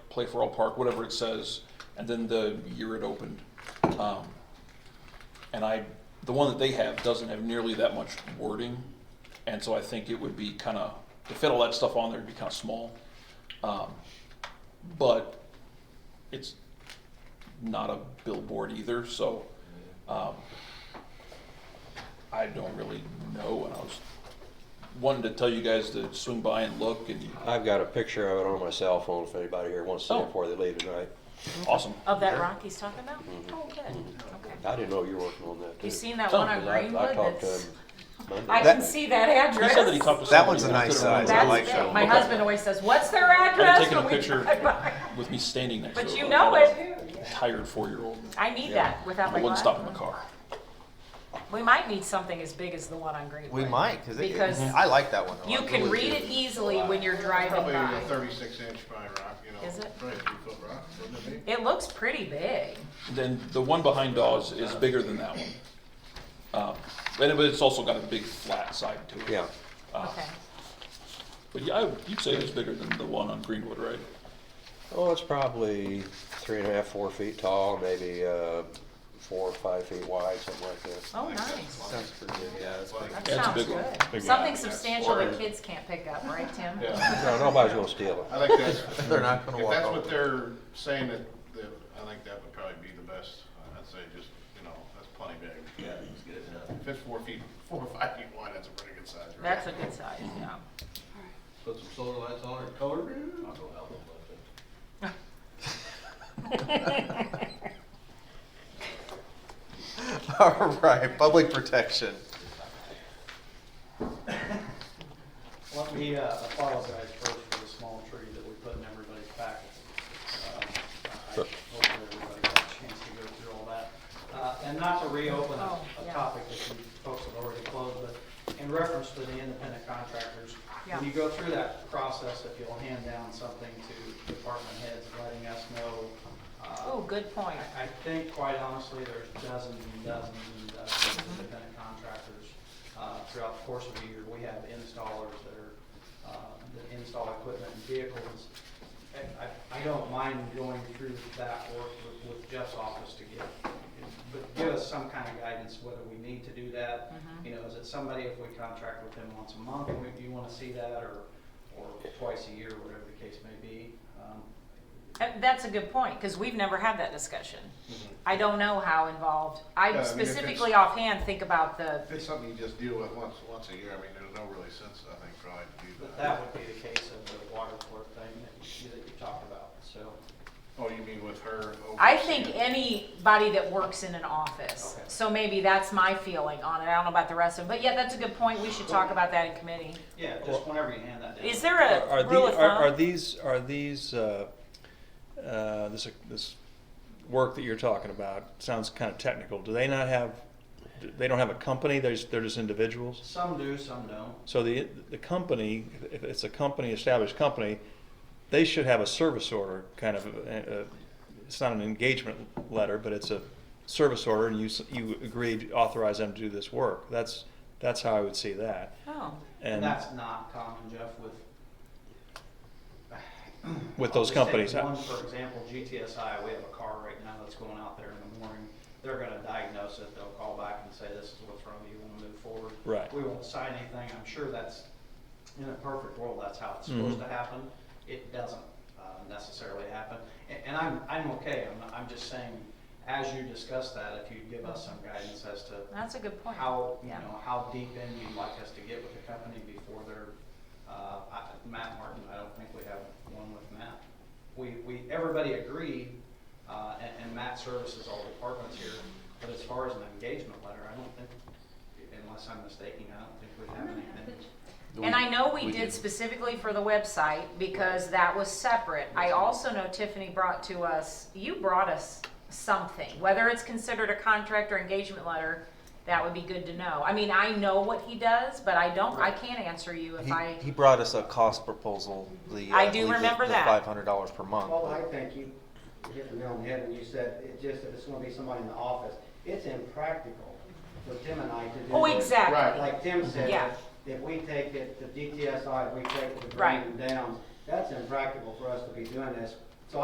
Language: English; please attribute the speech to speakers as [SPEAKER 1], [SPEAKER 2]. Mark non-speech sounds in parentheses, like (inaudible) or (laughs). [SPEAKER 1] Play for All Park, whatever it says, and then the year it opened. Um, And I, the one that they have doesn't have nearly that much wording, and so I think it would be kind of, to fit all that stuff on there would be kind of small. Um, But it's not a billboard either, so um, I don't really know, and I was wanting to tell you guys to swing by and look, and
[SPEAKER 2] I've got a picture of it on my cell phone if anybody here wants to see
[SPEAKER 1] Oh.
[SPEAKER 2] it before they leave tonight.
[SPEAKER 1] awesome.
[SPEAKER 3] Of that rock he's talking about?
[SPEAKER 2] Mhm.
[SPEAKER 3] Oh, good, okay.
[SPEAKER 2] I didn't know you were working on that too.
[SPEAKER 3] You seen that
[SPEAKER 1] Oh,
[SPEAKER 3] one on
[SPEAKER 2] 'Cause I- I
[SPEAKER 3] Greenwood?
[SPEAKER 2] talked to
[SPEAKER 3] That's-
[SPEAKER 2] him Monday.
[SPEAKER 3] I can see that
[SPEAKER 1] He
[SPEAKER 3] address.
[SPEAKER 1] said that he talked to somebody.
[SPEAKER 4] That one's a
[SPEAKER 1] and I
[SPEAKER 4] nice
[SPEAKER 1] couldn't
[SPEAKER 4] size.
[SPEAKER 1] remember.
[SPEAKER 4] I like
[SPEAKER 3] That's
[SPEAKER 4] that
[SPEAKER 3] it.
[SPEAKER 4] one.
[SPEAKER 3] My
[SPEAKER 1] Okay.
[SPEAKER 3] husband always says, what's their
[SPEAKER 1] I'd
[SPEAKER 3] address?
[SPEAKER 1] taken a
[SPEAKER 3] when we
[SPEAKER 1] picture
[SPEAKER 3] drive by?"
[SPEAKER 1] with me standing next to it.
[SPEAKER 3] But you
[SPEAKER 1] like
[SPEAKER 3] know
[SPEAKER 1] I was
[SPEAKER 3] it.
[SPEAKER 1] a Tired four-year-old.
[SPEAKER 3] I need that without
[SPEAKER 1] I
[SPEAKER 3] my
[SPEAKER 1] wouldn't
[SPEAKER 3] glasses.
[SPEAKER 1] stop in the car.
[SPEAKER 3] We might need something as big as the one on Greenwood.
[SPEAKER 4] We might, cause it,
[SPEAKER 3] Because
[SPEAKER 4] I like that one. a lot.
[SPEAKER 3] you can
[SPEAKER 4] Really
[SPEAKER 3] read
[SPEAKER 4] do.
[SPEAKER 3] it easily when you're driving
[SPEAKER 5] Probably a
[SPEAKER 3] by.
[SPEAKER 5] thirty-six inch pine rock, you know.
[SPEAKER 3] Is it?
[SPEAKER 5] Probably a three-foot rock, wouldn't it be?
[SPEAKER 3] It looks pretty big.
[SPEAKER 1] Then the one behind Dawes is bigger than that one. Um, And it- but it's also got a big flat side to it.
[SPEAKER 2] Yeah,
[SPEAKER 1] Uh,
[SPEAKER 3] Okay.
[SPEAKER 1] But yeah, I- you'd say it's bigger than the one on Greenwood, right?
[SPEAKER 2] oh, it's probably three and a half, four feet tall, maybe, uh, four or five feet wide, something like that.
[SPEAKER 3] Oh, nice.
[SPEAKER 4] Sounds pretty good, yeah, that's pretty-
[SPEAKER 3] That
[SPEAKER 1] Yeah, it's a
[SPEAKER 3] sounds
[SPEAKER 1] big one.
[SPEAKER 3] good.
[SPEAKER 1] Big
[SPEAKER 3] Something
[SPEAKER 1] one.
[SPEAKER 3] substantial that kids can't pick up, right, Tim?
[SPEAKER 5] Yeah,
[SPEAKER 2] No, nobody's gonna steal it.
[SPEAKER 5] I think that's,
[SPEAKER 4] They're not gonna
[SPEAKER 5] if
[SPEAKER 4] walk
[SPEAKER 5] that's
[SPEAKER 4] over.
[SPEAKER 5] what they're saying, that, that, I think that would probably be the best. I'd say just, you know, that's plenty big. Yeah, it's good If it's four feet, (laughs) four or five feet wide, that's a pretty good size. right?
[SPEAKER 3] That's a good size, yeah.
[SPEAKER 6] Put some solar lights on it, color it. I'll go help them with it.
[SPEAKER 4] (laughs) All right, public protection.
[SPEAKER 7] Let me uh, apologize first for the small tree that we put in everybody's packet. Um, I-
[SPEAKER 2] Sure.
[SPEAKER 7] Hopefully everybody got a chance to go through all that. Uh, And not to reopen a
[SPEAKER 3] Oh,
[SPEAKER 7] a
[SPEAKER 3] yeah.
[SPEAKER 7] topic that you folks have already closed, but in reference to the independent contractors,
[SPEAKER 3] Yeah.
[SPEAKER 7] when you go through that process, if you'll hand down something to department heads letting us know uh,
[SPEAKER 3] (laughs) Oh, good point.
[SPEAKER 7] I, I think quite honestly, there's dozens and dozens and dozens of independent contractors, uh, throughout the course of the year. We have installers that are, uh, that install equipment and vehicles. And I, I don't mind going through that work with- with Jeff's office to get, but give us some kind of guidance whether we need to do that. You know, is it somebody, if we contract with them once a month, and we- you wanna see that, or, or twice a year, whatever the case may be? Um,
[SPEAKER 3] And that's a good point, because we've never had that discussion.
[SPEAKER 6] Mm-hmm.
[SPEAKER 3] I don't know how involved,
[SPEAKER 5] Yeah, I
[SPEAKER 3] I
[SPEAKER 5] mean, if it's-
[SPEAKER 3] specifically offhand think about the,
[SPEAKER 5] If it's something you just deal with once, once a year, I mean, there's no really sense, I think, probably to do
[SPEAKER 7] But that
[SPEAKER 5] that.
[SPEAKER 7] would be the case of the water court thing that you, that you talked about, so.
[SPEAKER 5] Oh, you mean with her?
[SPEAKER 3] I
[SPEAKER 5] overseeing
[SPEAKER 3] think
[SPEAKER 5] it?
[SPEAKER 3] anybody that works in an office.
[SPEAKER 7] Okay.
[SPEAKER 3] So maybe that's my feeling on it, I don't know about the rest of them, but yeah, that's a good point, we should talk about that in committee.
[SPEAKER 7] Yeah, just whenever you hand that down.
[SPEAKER 3] Is there
[SPEAKER 8] Are- Are
[SPEAKER 3] a rule of
[SPEAKER 8] the- are- Are
[SPEAKER 3] thumb?
[SPEAKER 8] these, are these, uh, uh, this, this work that you're talking about, sounds kind of technical, do they not have, they don't have a company, they're just, they're just individuals?
[SPEAKER 7] Some do, some don't.
[SPEAKER 8] So the, the company, if it's a company, established company, they should have a service order, kind of, uh, uh, it's not an engagement letter, but it's a service order, and you, s- you agreed, to authorize them to do this work, that's, that's how I would see that.
[SPEAKER 3] Oh,
[SPEAKER 7] And that's not common, Jeff, with.
[SPEAKER 8] With
[SPEAKER 7] I'll
[SPEAKER 8] those
[SPEAKER 7] just take
[SPEAKER 8] companies, huh?
[SPEAKER 7] One, for example, GTSI, we have a car right now that's going out there in the morning. They're gonna diagnose it, they'll call back and say, this is what's wrong, you wanna move forward.
[SPEAKER 8] Right.
[SPEAKER 7] We won't sign anything, I'm sure that's, in a perfect world, that's how it's
[SPEAKER 8] Mhm.
[SPEAKER 7] supposed to happen. It doesn't uh, necessarily happen. And, and I'm, I'm okay, I'm, not- I'm just saying, as you discuss that, if you give us some guidance as to
[SPEAKER 3] that's a good point.
[SPEAKER 7] how, you
[SPEAKER 3] Yeah.
[SPEAKER 7] know, how deep in you'd like us to get with the company before they're, uh, I- Matt Martin, I don't think we have one with Matt. We, we, everybody agreed, uh, and, and Matt services all departments here, but as far as an engagement letter, I don't think, unless I'm mistaken, I don't think we have anything.
[SPEAKER 3] And I know we did specifically for the website because that was separate. I also know Tiffany brought to us, you brought us something, whether it's considered a contract or engagement letter, that would be good to know. I mean, I know what he does, but I don't, I can't answer you if
[SPEAKER 4] He,
[SPEAKER 3] I,
[SPEAKER 4] he brought us a cost proposal, the. uh,
[SPEAKER 3] I do
[SPEAKER 4] believe the-
[SPEAKER 3] remember
[SPEAKER 4] the
[SPEAKER 3] that.
[SPEAKER 4] Five hundred dollars per month.
[SPEAKER 9] Well,
[SPEAKER 4] but-
[SPEAKER 9] I think you hit the nail on the head when you said, it just, if it's gonna be somebody in the office, it's impractical for Tim and I to do.
[SPEAKER 3] oh,
[SPEAKER 9] this.
[SPEAKER 3] exactly.
[SPEAKER 9] Like Tim said,
[SPEAKER 3] Yeah.
[SPEAKER 9] if we take it to DTSI, if we take it to
[SPEAKER 3] Right.
[SPEAKER 9] Green Downs, that's impractical for us to be doing this